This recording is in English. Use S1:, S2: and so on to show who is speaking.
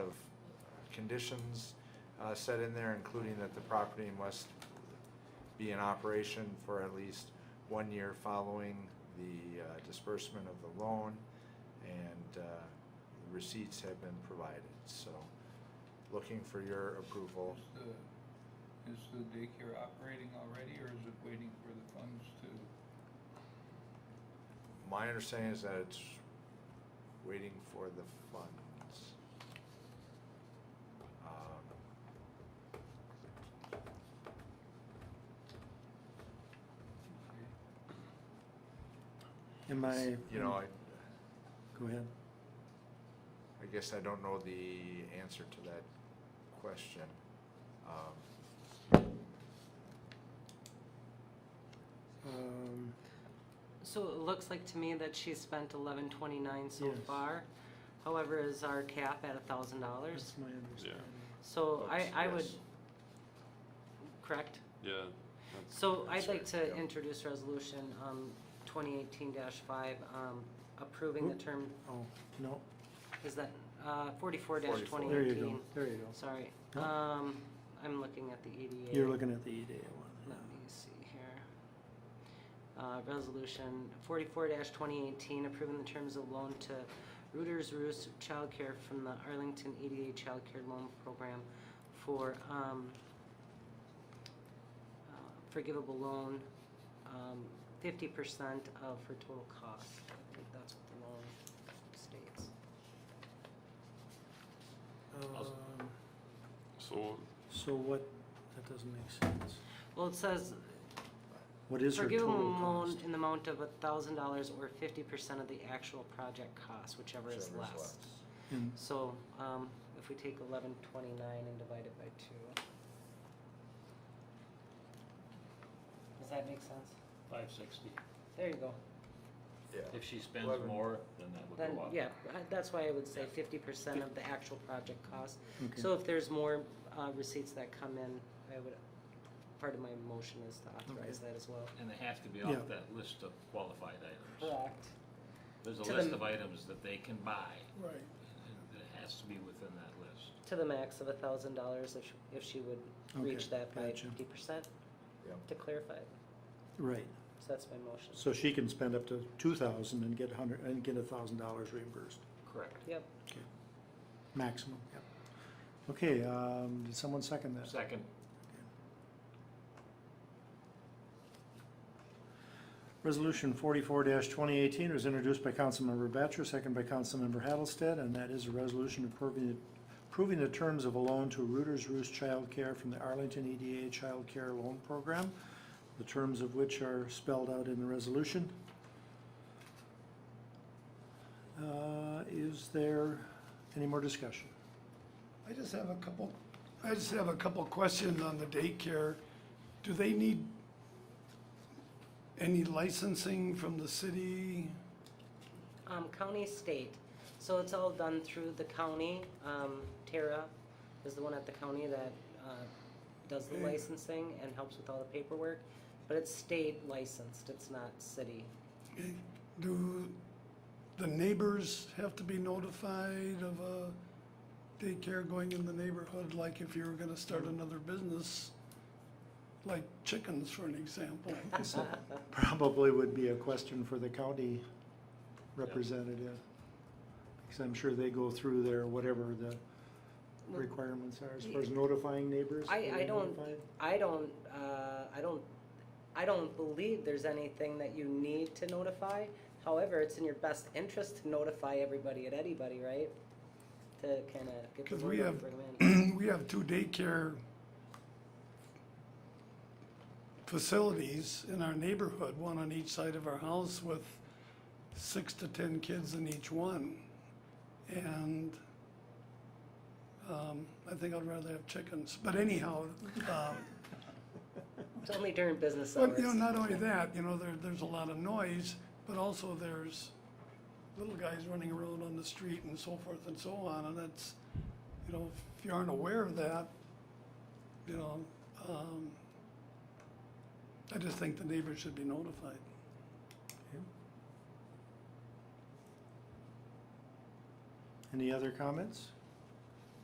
S1: conditions uh, set in there, including that the property must be in operation for at least one year following the uh, disbursement of the loan, and uh, receipts have been provided. So, looking for your approval.
S2: Is the- Is the daycare operating already, or is it waiting for the funds to,
S1: My understanding is that it's waiting for the funds. Um,
S3: Am I?
S1: You know, I,
S3: Go ahead.
S1: I guess I don't know the answer to that question. Um,
S3: Um,
S4: So it looks like to me that she spent eleven twenty-nine so
S3: Yes.
S4: far. However, is our cap at a thousand dollars?
S3: That's my understanding.
S4: So I,
S1: Oops,
S4: I would,
S1: yes.
S4: correct?
S5: Yeah.
S4: So I'd
S1: That's
S4: like
S1: right,
S4: to
S1: yeah.
S4: introduce resolution, um, twenty eighteen five, um, approving the
S3: Oop.
S4: term,
S3: Oh, no, oh,
S4: is that, uh, forty-four twenty
S1: 44.
S3: there you
S4: eighteen?
S3: go, there you go.
S4: Sorry,
S3: No.
S4: um, I'm looking at the E EDA.
S3: You're looking at the EDA one.
S4: Let me see here. Uh, resolution forty-four twenty eighteen, approving the terms of loan to Rooters Roost Childcare from the Arlington ADA Childcare Loan Program for, um, uh, forgivable loan, um, fifty percent of her total cost. I think that's what the loan states.
S3: Um,
S5: So,
S3: So what, that doesn't make sense.
S4: Well, it says
S3: What is her
S4: Forgive
S3: total
S4: them loan
S3: cost?
S4: in the amount of a thousand dollars or fifty percent of the actual project cost, whichever is
S1: whichever is
S4: less.
S1: less.
S3: And
S4: So, um, if we take eleven twenty-nine and divide it by two. Does that make sense?
S6: Five sixty.
S4: There you go.
S1: Yeah.
S6: If she spends
S1: Eleven.
S6: more, then that
S4: Then,
S6: would go up.
S4: yeah, I- that's why I would say fifty percent of the actual project cost.
S3: Okay.
S4: So if there's more, uh, receipts that come in, I would, part of my motion is to authorize that as well.
S6: And they have to be
S3: Yeah.
S6: off that list of qualified items.
S4: Correct.
S6: There's
S4: To
S6: a list
S4: the-
S6: of items that they can buy,
S3: Right.
S6: and it has to be within that list.
S4: To the max of a thousand dollars if, she- if she would
S3: Okay,
S4: reach that by
S3: gotcha.
S4: fifty percent,
S1: Yep.
S4: to clarify. it.
S3: Right,
S4: So that's my motion.
S3: so she can spend up to two thousand and get a hundred, and get a thousand dollars reimbursed,
S6: Correct.
S4: Yep,
S3: okay, maximum, yep. Okay, um, did someone second that?
S6: Second,
S3: Resolution forty-four twenty eighteen was introduced by Councilmember Batchor, second by Councilmember Hattlestead, and that is a resolution approving, approving the terms of a loan to Rooters Roost Child Care from the Arlington EDA Child Care Loan Program, the terms of which are spelled out in the resolution. Uh, is there any more discussion?
S7: I just have a couple, I just have a couple questions on the daycare. Do they need any licensing from the city?
S4: um, county, state, so it's all done through the county, um, Tara is the one at the county that, uh, does the
S7: Okay.
S4: licensing and helps with all the paperwork, but it's state licensed, it's not city.
S7: Do the neighbors have to be notified of a daycare going in the neighborhood? Like if you were gonna start another business, like chickens for an example?
S3: So, Probably would be a question for the county representative. Because I'm sure they go through their, whatever the requirements are, as far as notifying neighbors.
S4: I,
S3: are
S4: I
S3: they
S4: don't,
S3: notified?
S4: I don't, uh, I don't, I don't believe there's anything that you need to notify. However, it's in your best interest to notify everybody and anybody, right? To kinda get the
S7: Because
S4: word
S7: we
S4: out,
S7: have,
S4: and bring 'em in.
S7: we have two daycare facilities in our neighborhood, one on each side of our house with six to ten kids in each one. And um, I think I'd rather have chickens, but anyhow, um,
S4: It's only during business hours.
S7: but, you know, not only that, you know, there, there's a lot of noise, but also there's little guys running around on the street and so forth and so on, and it's, you know, if you aren't aware of that, you know, um, I just think the neighbors should be notified.
S3: Any other comments?